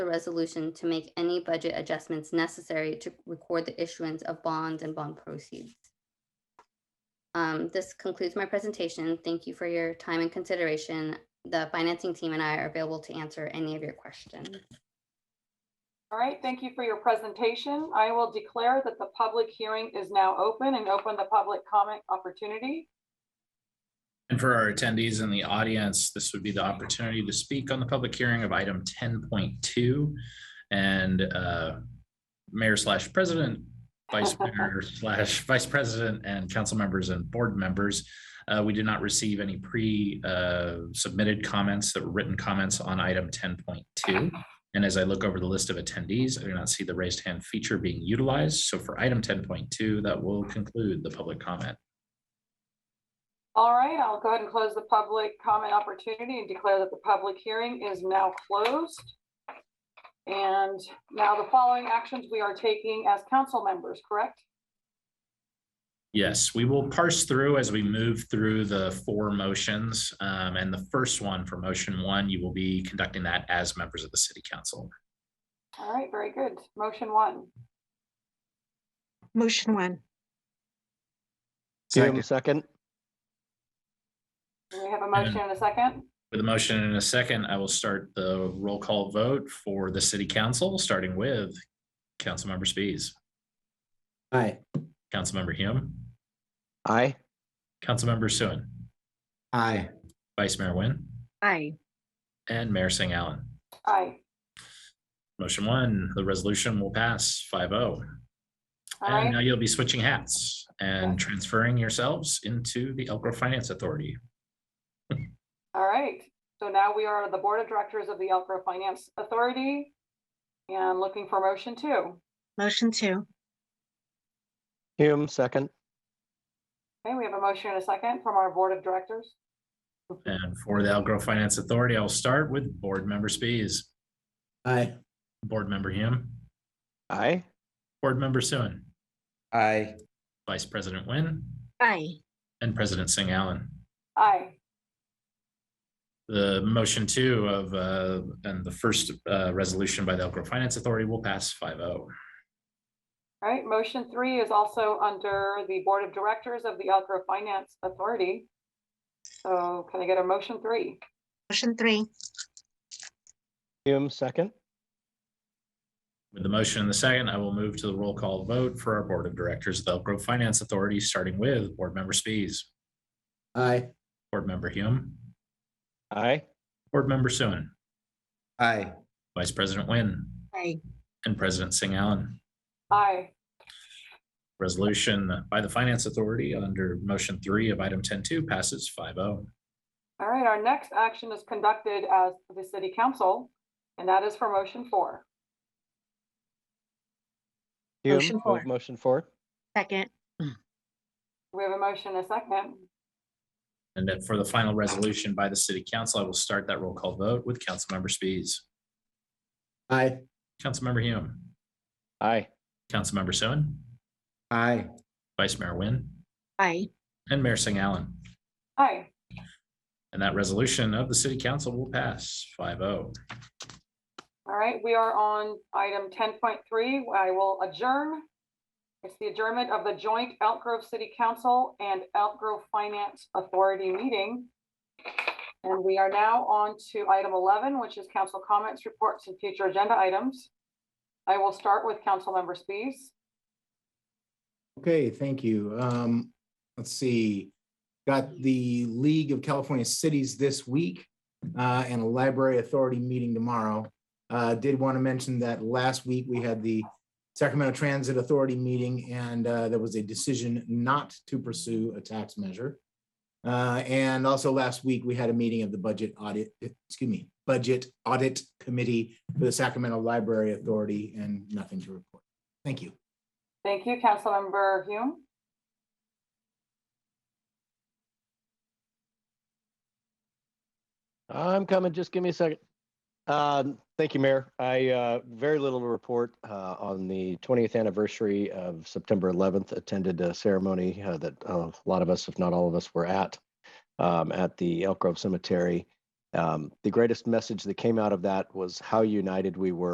the resolution to make any budget adjustments necessary to record the issuance of bonds and bond proceeds. Um, This concludes my presentation. Thank you for your time and consideration. The financing team and I are available to answer any of your questions. All right, thank you for your presentation. I will declare that the public hearing is now open and open the public comment opportunity. And for our attendees in the audience, this would be the opportunity to speak on the public hearing of item ten point two. And uh, mayor slash president, vice mayor slash vice president and council members and board members. Uh, We did not receive any pre uh, submitted comments, that were written comments on item ten point two. And as I look over the list of attendees, I do not see the raised hand feature being utilized. So for item ten point two, that will conclude the public comment. All right, I'll go ahead and close the public comment opportunity and declare that the public hearing is now closed. And now the following actions we are taking as council members, correct? Yes, we will parse through as we move through the four motions. Um, and the first one for motion one, you will be conducting that as members of the city council. All right, very good. Motion one. Motion one, Hume, second. Do We have a motion and a second. With a motion in a second, I will start the roll call vote for the city council, starting with Councilmember Spies, Aye. Councilmember Hume, Aye. Councilmember Suen, Aye. Vice Mayor Nguyen, aye. and Mayor Singh Allen. Aye. Motion one, the resolution will pass 5-0. All And now right, you'll be switching hats and Yeah. transferring yourselves into the Elk Grove Finance Authority. all right. So now we are the Board of Directors of the Elk Grove Finance Authority and looking for motion two. Motion two, Hume, second. Okay, we have a motion and a second from our Board of Directors. And for the Elk Grove Finance Authority, I'll start with Board Member Spies, Aye. Board Member Hume, Aye. Board Member Suen, Aye. Vice President Nguyen, aye. and President Singh Allen. Aye. The motion two of, uh, and the first uh, resolution by the Elk Grove Finance Authority will pass oh. 5-0. All right, motion three is also under the Board of Directors of the Elk Grove Finance Authority. So can I get a motion three? Motion three, Hume, second. With the motion in the second, I will move to the roll call vote for our Board of Directors of the Elk Grove Finance Authority, starting with Board Member Spies, Aye. Board Member Hume, Aye. Board Member Suen, Aye. Vice President Nguyen, aye. and President Singh Allen. Aye. Resolution by the Finance Authority under motion three of item ten two passes oh. 5-0. All right, our next action is conducted as the City Council, and that is for motion four. Motion Hume, four. move motion four. Second, We have a motion and a second. And then for the final resolution by the City Council, I will start that roll call vote with Councilmember Spies, Aye. Councilmember Hume, Aye. Councilmember Suen, Aye. Vice Mayor Nguyen, aye. and Mayor Singh Allen. Aye. And that resolution of the City Council will pass oh. 5-0. All right, we are on item ten point three. I will adjourn. It's the adjournment of the joint Elk Grove City Council and Elk Grove Finance Authority meeting. And we are now on to item eleven, which is council comments, reports, and future agenda items. I will start with Councilmember Spies. Okay, thank you. Um, let's see. Got the League of California Cities this week uh, and a library authority meeting tomorrow. Uh, did want to mention that last week we had the Sacramento Transit Authority meeting and uh, there was a decision not to pursue a tax measure. Uh, and also last week we had a meeting of the budget audit, excuse me, budget audit committee for the Sacramento Library Authority and nothing to report. Thank you. Thank you, Councilmember Hume. I'm coming. Just give me a second. Um, thank you, Mayor. I, uh, very little to report, uh, on the twentieth anniversary of September eleventh, attended a ceremony, uh, that uh, a lot of us, if not all of us, were at, um, at the Elk Grove Cemetery. Um, the greatest message that came out of that was how united we were